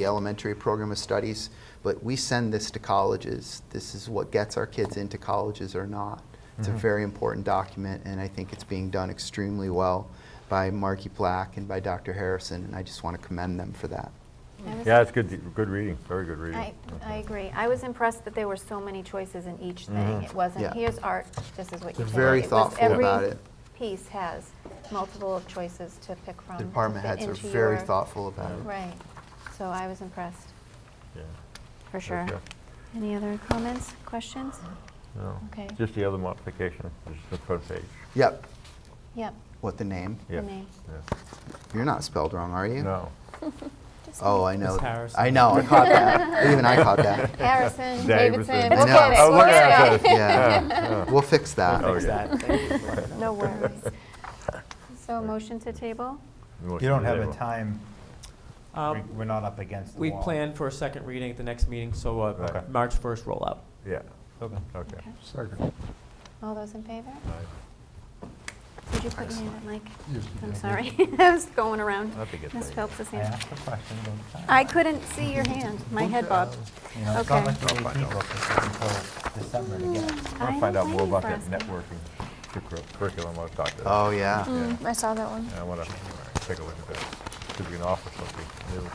the elementary program of studies, but we send this to colleges. This is what gets our kids into colleges or not. It's Mm-hmm. a very important document, and I think it's being done extremely well by Marky Black and by Dr. Harrison, and I just want to commend them for that. I was- Yeah, it's good, good reading, very good reading. I, I agree. I was impressed that there were so many choices in each thing. It Mm-hmm. Yeah. wasn't, here's art, this is what They're you take. very It was thoughtful every about it. Piece has multiple choices to pick from. The department to fit heads are into very your- thoughtful about it. Right. So I was impressed, Yeah. for sure. Okay. Any other comments, questions? No. Okay. Just the other modification, just the front page. Yep. Yep. What the name? The Yeah, name. yeah. You're not spelled wrong, are you? No. Oh, I know. Miss Harrison. I know. Oh, I caught that. Even I caught that. Harrison, Davidson. Davidson, I look know. at it. Oh, look at at it. Yeah. Yeah. We'll fix that. Oh, Fix yeah. that. Thank you for it. No worries. So motion to table? Motion You don't to have a table. time, we- Um, we're not up against the We wall. plan for a second reading at the next meeting, so uh, Okay. March 1st rollout. Yeah, Okay. okay. Second. All those in favor? Aye. Did you put your hand up, Mike? Yes, I'm yeah. sorry, I was going around. That's a good Ms. thing. Phelps' I hand. asked a question about the time. I couldn't see your hand, my head bobbed. You know, it's not okay. Mm, like I'll find out. the AP book is until December to get. it. I want I to find out don't more blame you about for that asking. networking curricu- curriculum, I want to talk to. Oh, yeah. Yeah. Mm, I saw that one. I want to take a look at that, see if we can offer something new.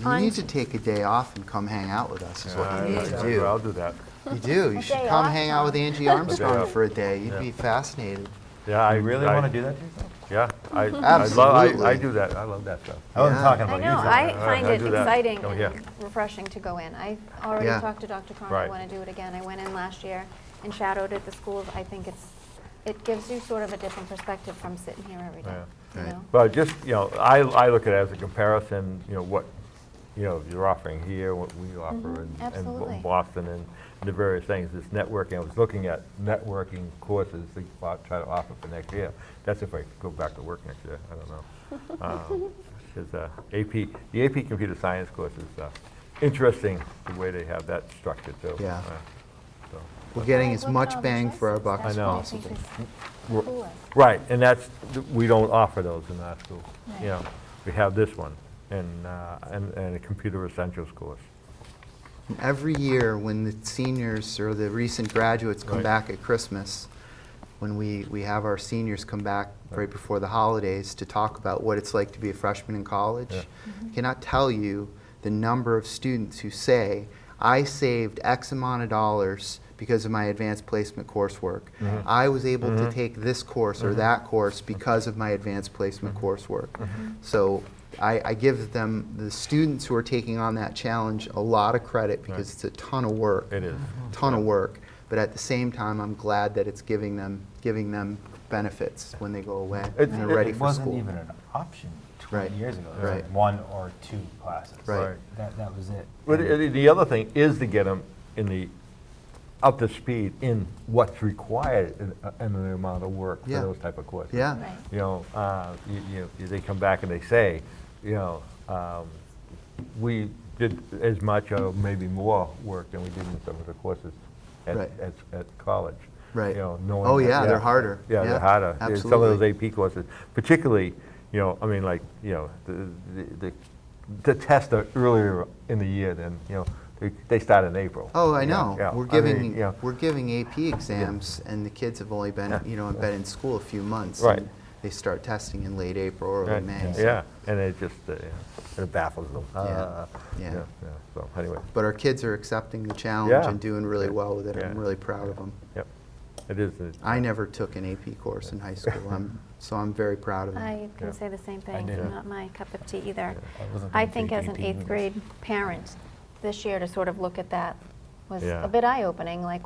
You On- need to take a day off and come hang out with us, is Yeah, what you need to I'll- I'll do. do that. You do. You A should day come off, hang out with huh? Angie Armstrong off. for a day. You'd Yeah. be fascinated. Yeah, I. You really I- want to do that to yourself? Yeah, I, I love, I- I Absolutely. do that, I love that stuff. I wasn't Yeah. talking I about you. know, Zach. I Yeah, find I'll it do that. exciting Oh, yeah. and refreshing to go in. I already Yeah. talked to Dr. Cron, I Right. want to do it again. I went in last year and shadowed at the schools. I think it's, it gives you sort of a different perspective from sitting here every day, Yeah. you Right. know? But just, you know, I, I look at it as a comparison, you know, what, you know, you're offering here, what we offer in- in Mm-hmm. absolutely. Bo- Boston and the various things, this networking, I was looking at networking courses to o- try to offer for next year. That's if I go back to work next year, I don't know. Um, it's, uh, AP, the AP Computer Science course is uh, interesting, the way they have that structured too. Yeah. Uh, so. We're getting Right, as look at all much the bang for our choices. buck as That's what I know. possible. think is We're- coolest. Right, and that's, th- we don't offer those in our school. You Right. know, we have this one and, uh, and and a computer essentials course. And Every year, when the seniors or the recent graduates come Right. back at Christmas, when we, we have our seniors come back right Right. before the holidays to talk about what it's like to be a freshman in college, Yeah. I cannot tell you the number of students who say, I saved X amount of dollars because of my advanced placement coursework. Mhm. I was able to Mhm. take this course or Mhm. that course because of my advanced placement Mm-hmm. coursework. So I, I give them, the students who are taking on that challenge, a lot of credit because it's a ton of work. It is. Ton of work. But at the same time, I'm glad that it's giving them, giving them benefits when they go away It- and they're it- ready It for wasn't school. even an option Right. 20 years ago. There was Right. one or two classes. Right. Right. That, that was it. But And- i- the other thing is to get them in the, up to speed in what's required in- uh, and the amount of work for Yeah. those type of courses. Yeah. Right. You know, uh, you- you- you- they come back and they say, you know, um, we did as much or maybe more work than we did in some of the courses at, Right. at, at college. Right. You know, knowing Oh, that- yeah, they're harder. Yeah, Yeah, they're harder. There's Some of absolutely. those AP courses, particularly, you know, I mean, like, you know, the, the, the, the tests are earlier in the year than, you know, they, they start in April. Oh, I you know. yeah. We're I giving mean, you know, we're giving AP exams, and the kids have only been Yeah. you know been in school a few months. Right. And they start testing in late April or early Right, May. so- Yeah, and it just, uh, yeah, it baffles them. Yeah, Uh, yeah. yeah, So anyway, But our kids are accepting the challenge Yeah. and doing really Yeah, well with it. I'm yeah, really proud of them. yep, it is. a- I never took an AP course in high school, I'm, so I'm very proud of it. I can say the same thing, did. not my cup of tea either. I wasn't I gonna think take as an AP eighth English. grade parent, this year to sort of look at that was Yeah. a bit eye-opening, like,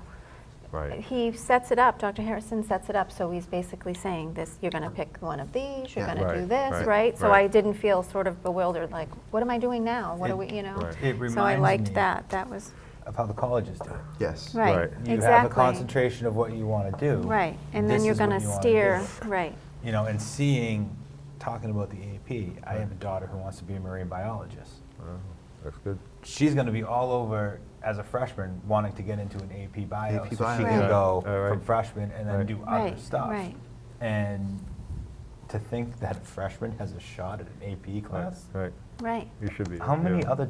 Right. he sets it up, Dr. Harrison sets it up, so he's basically saying this, you're gonna pick one of these, you're Yeah. gonna do Right, this, right, right? So right. I didn't feel sort of bewildered, like, what am I doing now? What It- do we, you know? Right. It So I reminds me- liked that, that was, Of how the colleges do it. Yes. right, Right. exactly. You have a concentration of what you want to do. Right, and This then you're is what gonna you wanna steer, do. right, you know, and seeing, talking about the AP, I have a daughter who wants to be a marine biologist. Wow, uh, That's good. She's going to be all over as a freshman wanting to get into an AP E bio. AP so bio. she Right. can go Yeah, all right. from freshman and then Right. do other Right, stuff. right. And to think that a freshman has a shot at an AP Right, class, Right, right. you should be. how many yeah. other